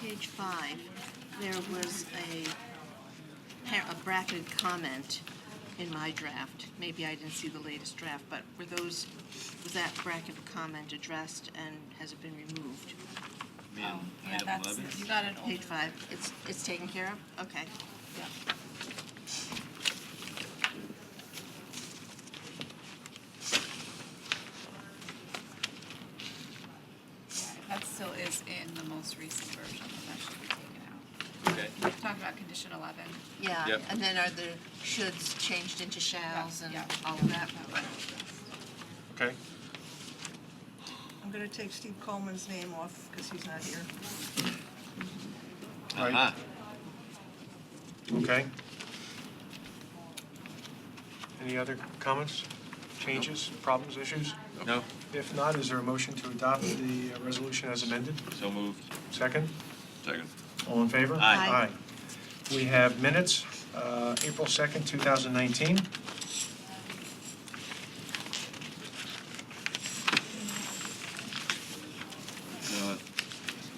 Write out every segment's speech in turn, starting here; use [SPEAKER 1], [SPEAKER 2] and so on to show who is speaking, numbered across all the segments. [SPEAKER 1] page five, there was a, par- a bracketed comment in my draft. Maybe I didn't see the latest draft, but were those, was that bracketed comment addressed and has it been removed?
[SPEAKER 2] Oh, yeah,
[SPEAKER 3] item
[SPEAKER 2] that's,
[SPEAKER 3] 11.
[SPEAKER 2] you got an old,
[SPEAKER 1] Page five, it's, it's taken care of? Okay.
[SPEAKER 2] yeah. That still is in the most recent version, that should be taken out.
[SPEAKER 3] Okay.
[SPEAKER 2] We've talked about condition eleven.
[SPEAKER 1] Yeah,
[SPEAKER 3] Yep.
[SPEAKER 1] and then are the shoulds changed into shalls and
[SPEAKER 2] Yeah.
[SPEAKER 1] all of that?
[SPEAKER 3] Okay.
[SPEAKER 4] I'm gonna take Steve Coleman's name off, because he's not here.
[SPEAKER 5] Right.
[SPEAKER 3] Ah,
[SPEAKER 6] Uh-huh.
[SPEAKER 5] Okay. Any other comments, changes, problems, issues?
[SPEAKER 3] no,
[SPEAKER 5] If not, is there a motion to adopt the uh, resolution as amended?
[SPEAKER 3] so moved.
[SPEAKER 5] Second?
[SPEAKER 3] Second.
[SPEAKER 5] All in favor?
[SPEAKER 1] Aye.
[SPEAKER 5] Aye. We have minutes, uh, April 2nd, 2019.
[SPEAKER 6] Uh,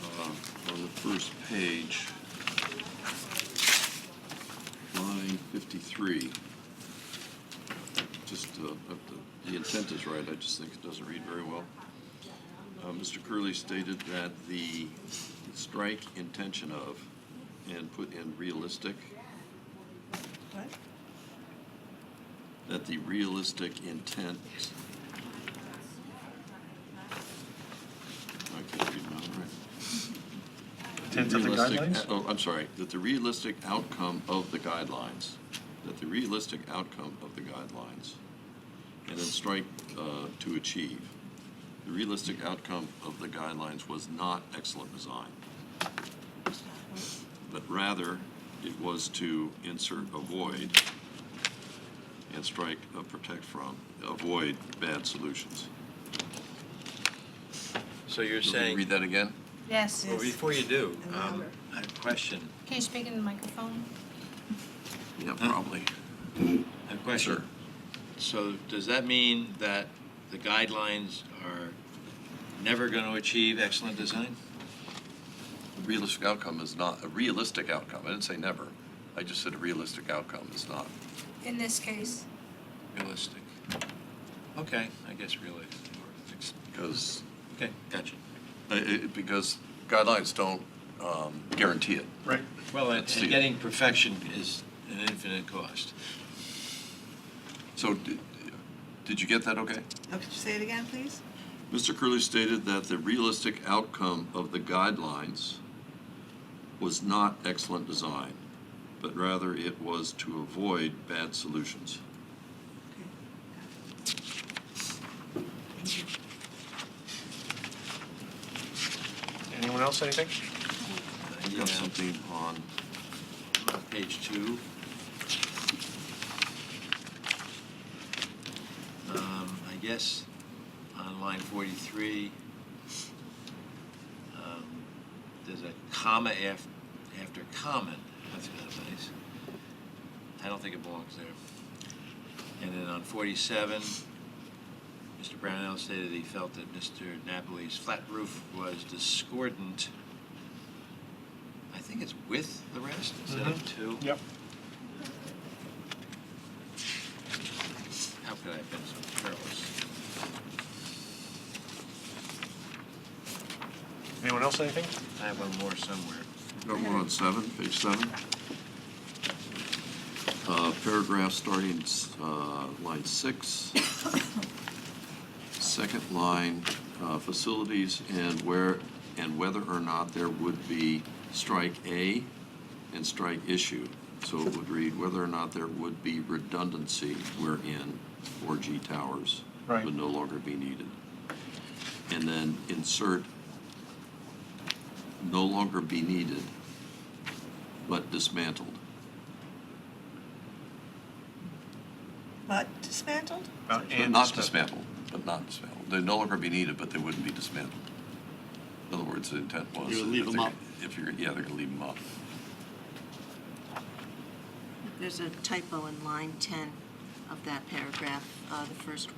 [SPEAKER 6] uh, On the first page, line 53, just, uh, up the- the intent is right, I just think it doesn't read very well. Uh, Mr. Curley stated that the strike intention of and put in realistic,
[SPEAKER 4] What?
[SPEAKER 6] that the realistic intent. I can't read my own writing.
[SPEAKER 5] Intent of the
[SPEAKER 6] realistic-
[SPEAKER 5] guidelines?
[SPEAKER 6] Oh, I'm sorry, that the realistic outcome of the guidelines, that the realistic outcome of the guidelines, and then strike uh, to achieve. The realistic outcome of the guidelines was not excellent design, but rather it was to insert avoid and strike uh, protect from, avoid bad solutions.
[SPEAKER 3] So you're
[SPEAKER 6] Will you
[SPEAKER 3] saying,
[SPEAKER 6] Read that again?
[SPEAKER 7] Yes.
[SPEAKER 3] well, before you do, um,
[SPEAKER 4] Another.
[SPEAKER 3] I have a question.
[SPEAKER 7] Can you speak in the microphone?
[SPEAKER 6] Yeah, probably.
[SPEAKER 3] I have a question.
[SPEAKER 6] Sure.
[SPEAKER 3] So does that mean that the guidelines are never going to achieve excellent design?
[SPEAKER 6] realistic outcome is not, a realistic outcome, I didn't say never. I just said a realistic outcome is not.
[SPEAKER 7] In this case,
[SPEAKER 3] Realistic. Okay, I guess realistic. or ex-
[SPEAKER 6] Because,
[SPEAKER 3] Okay, gotcha.
[SPEAKER 6] uh, it- because guidelines don't um, guarantee it.
[SPEAKER 5] Right.
[SPEAKER 3] Well, and
[SPEAKER 6] Let's
[SPEAKER 3] and
[SPEAKER 6] see.
[SPEAKER 3] getting perfection is an infinite cost.
[SPEAKER 6] So did, did you get that okay?
[SPEAKER 4] Okay, Oh, say it again, please?
[SPEAKER 6] Mr. Curley stated that the realistic outcome of the guidelines was not excellent design, but rather it was to avoid bad solutions.
[SPEAKER 5] Anyone else, anything?
[SPEAKER 3] Uh, You
[SPEAKER 6] You
[SPEAKER 3] know,
[SPEAKER 6] have something on,
[SPEAKER 3] on Page two. Um, I guess on line 43, um, there's a comma af- after comment. That's kind of nice. I don't think it belongs there. And then on 47, Mr. Brownell stated he felt that Mr. Napoli's flat roof was discordant. I think it's with the rest instead of
[SPEAKER 5] Mhm.
[SPEAKER 3] to.
[SPEAKER 5] Yep.
[SPEAKER 3] How could I have been so careless?
[SPEAKER 5] Anyone else, anything?
[SPEAKER 3] I have one more somewhere.
[SPEAKER 6] got one on seven, page seven. Uh, Paragraph starting uh, line six. Second line, uh, facilities and where, and whether or not there would be strike A and strike issue. So it would read whether or not there would be redundancy wherein 4G towers
[SPEAKER 5] Right.
[SPEAKER 6] would no longer be needed. And then insert no longer be needed, but dismantled.
[SPEAKER 4] But dismantled?
[SPEAKER 5] About
[SPEAKER 6] But
[SPEAKER 5] Uh, and
[SPEAKER 6] Not
[SPEAKER 5] disma-
[SPEAKER 6] dismantled, but not dismantled. They'd no longer be needed, but they wouldn't be dismantled. In other words, the intent was.
[SPEAKER 8] You would
[SPEAKER 6] that
[SPEAKER 8] leave
[SPEAKER 6] if
[SPEAKER 8] 'em
[SPEAKER 6] they-
[SPEAKER 8] up.
[SPEAKER 6] If you're, yeah, they're gonna leave them up.
[SPEAKER 1] There's a typo in line 10 of that paragraph, uh, the first word.